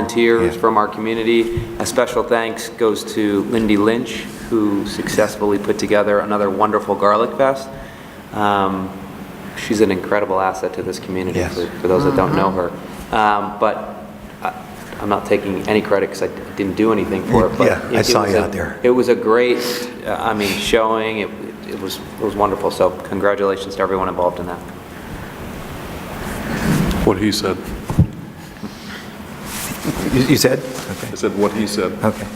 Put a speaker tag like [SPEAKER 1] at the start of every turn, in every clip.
[SPEAKER 1] volunteers from our community. A special thanks goes to Lindy Lynch, who successfully put together another wonderful garlic fest. Um, She's an incredible asset to this community,
[SPEAKER 2] Yes.
[SPEAKER 1] for for those that don't know her. Um, But I- I'm not taking any credit because I didn't do anything for it. but
[SPEAKER 2] Yeah, I
[SPEAKER 1] it- it
[SPEAKER 2] saw
[SPEAKER 1] was
[SPEAKER 2] you
[SPEAKER 1] a-
[SPEAKER 2] out there.
[SPEAKER 1] It was a great, uh, I mean, showing. It it was it was wonderful. So congratulations to everyone involved in that.
[SPEAKER 3] What he said.
[SPEAKER 2] You you said?
[SPEAKER 3] I
[SPEAKER 2] Okay.
[SPEAKER 3] said what he said.
[SPEAKER 2] Okay.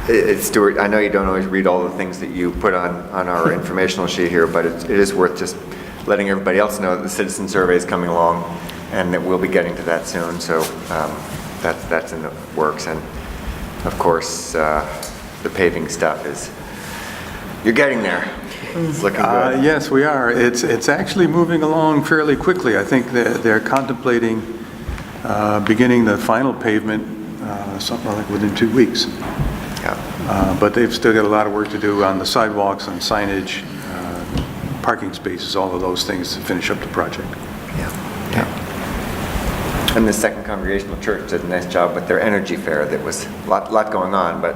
[SPEAKER 4] Uh, Stuart, I know you don't always read all the things that you put on, on our informational sheet here, but it's- it is worth just letting everybody else know that the citizen survey is coming along and that we'll be getting to that soon, so um, that's, that's in the works. And of course, uh, the paving stuff is, you're getting there. It's looking
[SPEAKER 5] Uh,
[SPEAKER 4] good.
[SPEAKER 5] Yes, we are. It's, it's actually moving along fairly quickly. I think they're they're contemplating uh, beginning the final pavement, uh, something like within two weeks.
[SPEAKER 4] Yeah.
[SPEAKER 5] Uh, But they've still got a lot of work to do on the sidewalks, on signage, uh, parking spaces, all of those things to finish up the project.
[SPEAKER 4] And the Second Congregational Church did a nice job with their energy fair. That was a lot, lot going on, but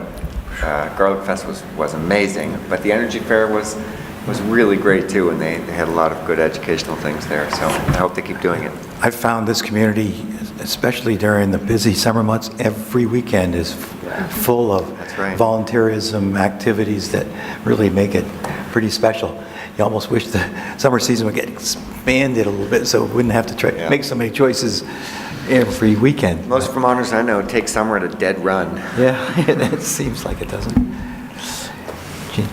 [SPEAKER 4] uh, Garlic Fest was, was amazing. But the energy fair was, was really great too, and they, they had a lot of good educational things there. So I hope they keep doing it.
[SPEAKER 2] I found this community, especially during the busy summer months, every weekend is full of
[SPEAKER 4] That's right.
[SPEAKER 2] volunteerism activities that really make it pretty special. You almost wish the summer season would get expanded a little bit so we wouldn't have to try,
[SPEAKER 4] Yeah.
[SPEAKER 2] make so many choices every weekend.
[SPEAKER 4] Most Vermonters I know take summer at a dead run.
[SPEAKER 2] Yeah, it seems like it doesn't. Gee.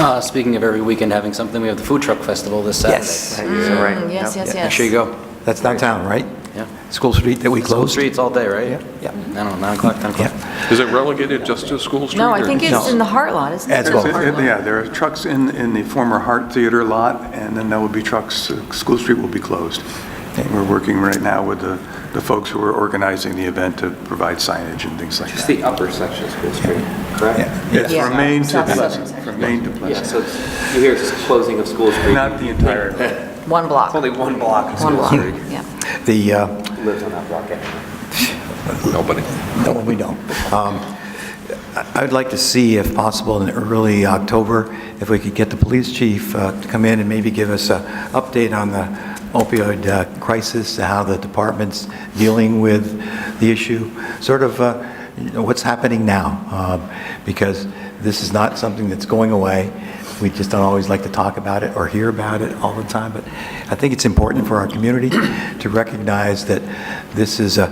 [SPEAKER 6] Uh, Speaking of every weekend having something, we have the Food Truck Festival this Saturday.
[SPEAKER 2] Yes.
[SPEAKER 4] Is that right?
[SPEAKER 7] Mm, Yes,
[SPEAKER 4] Yep.
[SPEAKER 7] yes,
[SPEAKER 6] Make sure you
[SPEAKER 7] yes.
[SPEAKER 6] go.
[SPEAKER 2] That's downtown, right?
[SPEAKER 6] Yeah.
[SPEAKER 2] School Street that we
[SPEAKER 6] School
[SPEAKER 2] closed?
[SPEAKER 6] streets all day, right?
[SPEAKER 2] Yeah, yeah.
[SPEAKER 6] I don't know, 9 o'clock, 10 o'clock.
[SPEAKER 2] Yeah.
[SPEAKER 3] Is it relegated just to School Street?
[SPEAKER 7] No,
[SPEAKER 3] or-
[SPEAKER 7] I think
[SPEAKER 2] No.
[SPEAKER 7] it's in the Heart Lot, isn't it?
[SPEAKER 2] As
[SPEAKER 7] There's
[SPEAKER 2] well.
[SPEAKER 7] a Heart
[SPEAKER 5] It's- it-
[SPEAKER 7] Lot.
[SPEAKER 5] Yeah, there are trucks in, in the former Hart Theater lot, and then there will be trucks, uh, School Street will be closed. We're working right now with the, the folks who are organizing the event to provide signage and things like that.
[SPEAKER 1] Just the upper section of School Street, correct?
[SPEAKER 2] Yeah.
[SPEAKER 5] Yes,
[SPEAKER 7] Yeah.
[SPEAKER 5] from Maine to
[SPEAKER 7] South
[SPEAKER 5] Pleasant,
[SPEAKER 7] Sussex.
[SPEAKER 5] from Maine to
[SPEAKER 1] Yeah,
[SPEAKER 5] Pleasant.
[SPEAKER 1] so it's- you hear it's closing of School Street.
[SPEAKER 5] Not the entire,
[SPEAKER 7] One block,
[SPEAKER 1] It's only
[SPEAKER 7] one
[SPEAKER 1] one block of School
[SPEAKER 7] block,
[SPEAKER 1] Street.
[SPEAKER 7] yeah.
[SPEAKER 2] The, uh,
[SPEAKER 1] Lives on that block, actually.
[SPEAKER 3] Nobody.
[SPEAKER 2] No, we don't. Um, I- I'd like to see, if possible, in early October, if we could get the police chief uh, to come in and maybe give us an update on the opioid uh, crisis, how the department's dealing with the issue, sort of uh, you know, what's happening now, uh, because this is not something that's going away. We just don't always like to talk about it or hear about it all the time, but I think it's important for our community to recognize that this is a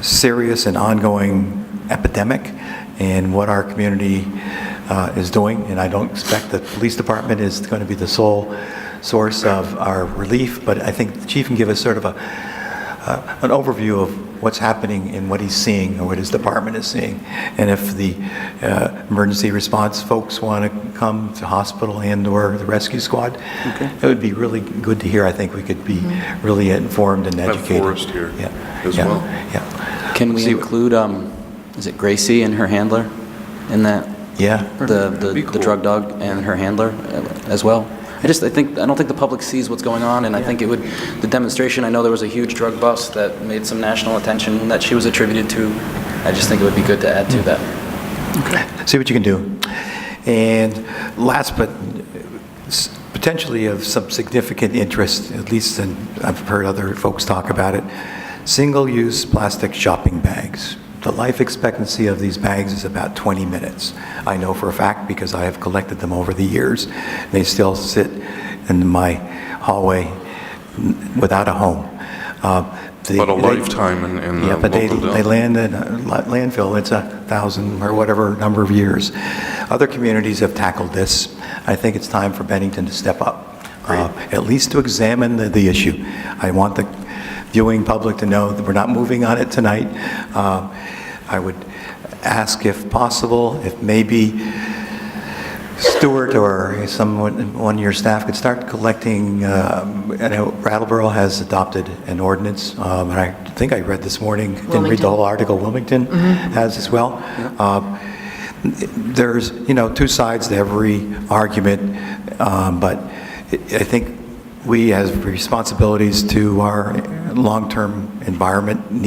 [SPEAKER 2] serious and ongoing epidemic and what our community uh, is doing. And I don't expect the police department is going to be the sole source of our relief, but I think the chief can give us sort of a, uh, an overview of what's happening and what he's seeing, or what his department is seeing. And if the uh, emergency response folks want to come to hospital and/or the rescue squad, it would be really good to hear. I think we could be really informed and
[SPEAKER 3] Have
[SPEAKER 2] educated.
[SPEAKER 3] Forrest here
[SPEAKER 2] Yeah,
[SPEAKER 3] as
[SPEAKER 2] yeah,
[SPEAKER 3] well.
[SPEAKER 2] Yeah.
[SPEAKER 6] Can we
[SPEAKER 2] See-
[SPEAKER 6] include, um, is it Gracie and her handler in that?
[SPEAKER 2] Yeah,
[SPEAKER 6] The
[SPEAKER 3] Be
[SPEAKER 6] the the
[SPEAKER 3] cool.
[SPEAKER 6] drug dog and her handler uh, as well? I just, I think, I don't think the public sees what's going on, and I think it would, the demonstration, I know there was a huge drug bust that made some national attention that she was attributed to. I just think it would be good to add
[SPEAKER 3] Mm.
[SPEAKER 6] to that.
[SPEAKER 2] see what you can do. And last but s- potentially of some significant interest, at least, and I've heard other folks talk about it, single-use plastic shopping bags. The life expectancy of these bags is about 20 minutes. I know for a fact because I have collected them over the years. They still sit in my hallway n- without a home. Uh, they-
[SPEAKER 3] But a
[SPEAKER 2] they-
[SPEAKER 3] lifetime in- in the
[SPEAKER 2] Yeah, but they-
[SPEAKER 3] local
[SPEAKER 2] they
[SPEAKER 3] dump.
[SPEAKER 2] land in a la- landfill, it's a thousand or whatever number of years. Other communities have tackled this. I think it's time for Bennington to step up, uh, at least to examine the, the issue. I want the viewing public to know that we're not moving on it tonight. Uh, I would ask if possible, if maybe Stewart or someone, one of your staff could start collecting, um, I knowRattleboro has adopted an ordinance, um, and I think I read this morning, didn't read the
[SPEAKER 7] Wilmington.
[SPEAKER 2] whole article, Wilmington has as well. Um, There's, you know, two sides to every argument, um, but I I think we have responsibilities to our long-term environment needs.